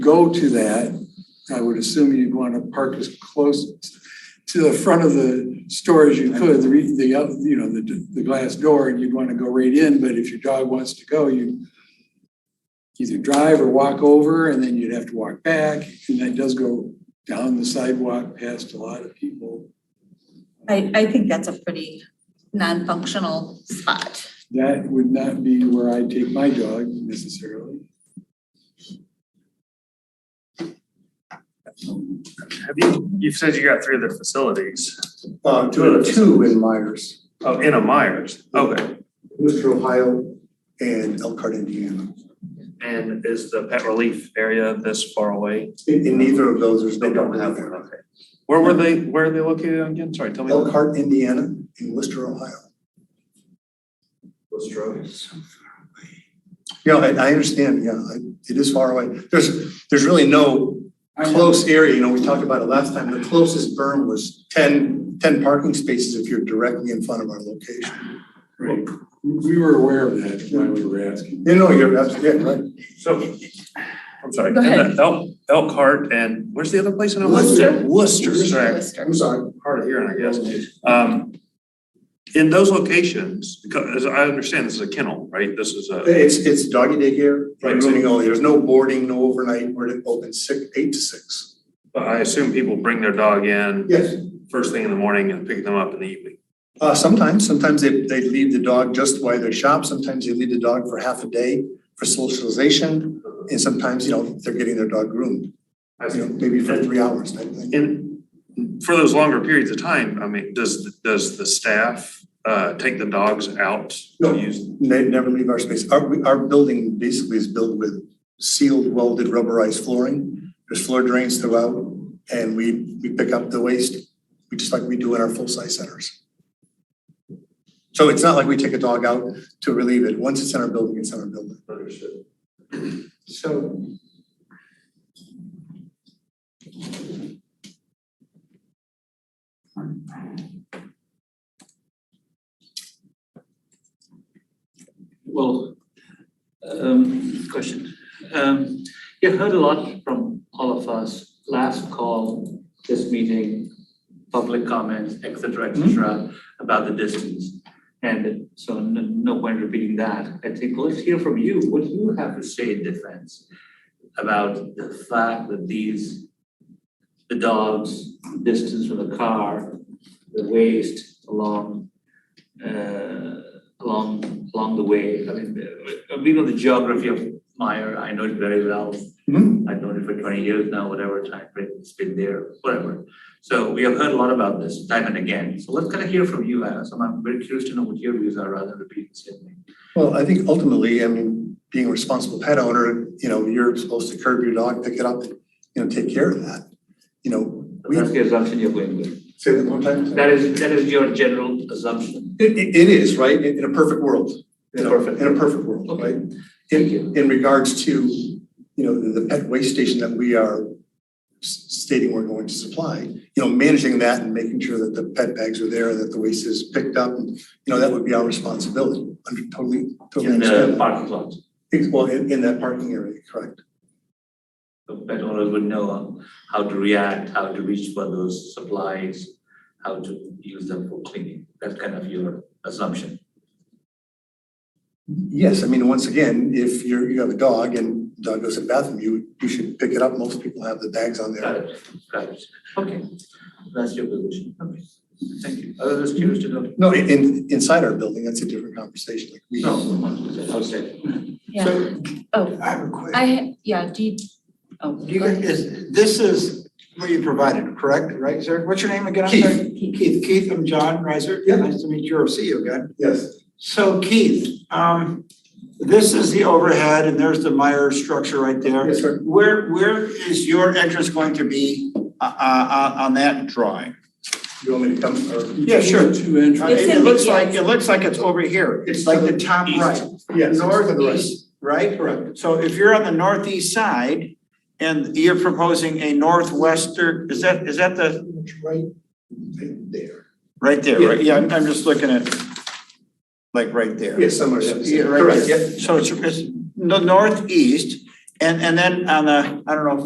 go to that, I would assume you'd want to park as close to the front of the store as you could, the, re- the, up- you know, the, the glass door, and you'd want to go right in, but if your dog wants to go, you either drive or walk over, and then you'd have to walk back, and that does go down the sidewalk past a lot of people. I, I think that's a pretty non-functional spot. That would not be where I'd take my dog necessarily. Have you, you've said you got three other facilities, Uh, two, two in Myers, oh, in a Myers, okay. Worcester, Ohio, and Elkhart, Indiana. And is the pet relief area this far away? In, in neither of those, there's no. They don't have one, okay. Where were they, where are they located again? Sorry, tell me. Elkhart, Indiana, and Worcester, Ohio. Those roads. Yeah, I, I understand, yeah, I- it is far away. There's, there's really no close area, you know, we talked about it last time. The closest berm was 10 10 parking spaces if you're directly in front of our location. Right. We were aware of that when we were asking. You know, you're absolutely yeah, right. So, I'm sorry. Go ahead. Elk, Elkhart and where's the other place in Ohio? Worcester. Worcester, sorry. I'm sorry. hard of hearing, I guess. Um, in those locations, because as I understand, this is a kennel, right? This is a, It's, it's doggy daycare, Right. grooming only. There's no boarding, no overnight. We're open six, eight to six. I assume people bring their dog in Yes. first thing in the morning and pick them up in the evening. Uh, sometimes, sometimes they, they leave the dog just while they shop, sometimes they leave the dog for half a day for socialization. And sometimes, you know, they're getting their dog groomed, you know, maybe for three hours type thing. And for those longer periods of time, I mean, does, does the staff, uh, take the dogs out No. to use? They never leave our space. Our, we- our building basically is built with sealed welded rubberized flooring. There's floor drains throughout and we, we pick up the waste, we just like we do in our full-size centers. So it's not like we take a dog out to relieve it. Once it's in our building, it's in our building. Understood. So. Well, um, question. Um, you heard a lot from all of us, last call, this meeting, public comments, et cetera, et cetera, about the distance. And so no, no point repeating that. I think let's hear from you, what you have to say in defense about the fact that these, the dogs, distance from the car, the waste along, uh, along, along the way. I mean, uh, we know the geography of Meyer, I know it very well. Mhm. I've known it for twenty years now, whatever time frame it's been there, whatever. So we have heard a lot about this time and again. So let's kind of hear from you, Anna. So I'm very curious to know what your views are rather than repeating the same thing. Well, I think ultimately, I mean, being a responsible pet owner, you know, you're supposed to curb your dog, pick it up, and, you know, take care of that. You know, we That's the assumption you're going with. say that one time. That is, that is your general assumption. It, it- it is, right, in, in a perfect world. you know, Perfect. In a perfect world, Okay. right? Thank you. In, in regards to, you know, the the pet waste station that we are s- stating we're going to supply, you know, managing that and making sure that the pet bags are there, that the waste is picked up, and, you know, that would be our responsibility. Under totally, totally In the understand that. parking lot. Ex- Well, in, in that parking area, correct. the pet owners would know how to react, how to reach for those supplies, how to use them for cleaning. That's kind of your assumption. Yes, I mean, once again, if you're, you have a dog and dog goes to the bathroom, you, you should pick it up. Most people have the bags on Got there. it, got it. Okay, that's your position. Okay, thank you. I was just curious to know. No, in- in, inside our building, that's a different conversation. Like we, No, outside. Yeah, oh, I have a question. I, yeah, do you, oh. Do you, is, this is what you provided, correct, right, sir? What's your name again? I'm sorry. Keith, Keith, I'm John Reiser. Yeah. Nice to meet you or see you again. yes. So Keith, um, this is the overhead and there's the Meyer structure right there. Yes, sir. Where, where is your entrance going to be, uh, uh, on that drawing? You want me to come or? Yeah, sure. Two entrances. Uh, It's It in looks the- like, it looks like it's over here. It's like the top East. right. Yes. Northeast, right? Correct. So if you're on the northeast side and you're proposing a northwestern, is that, is that the, Right there. right there, right? Yeah, I'm, I'm just looking at, like, right there. Yes, somewhere. Yeah, right there. So it's, it's the northeast And, and then on the, I don't know if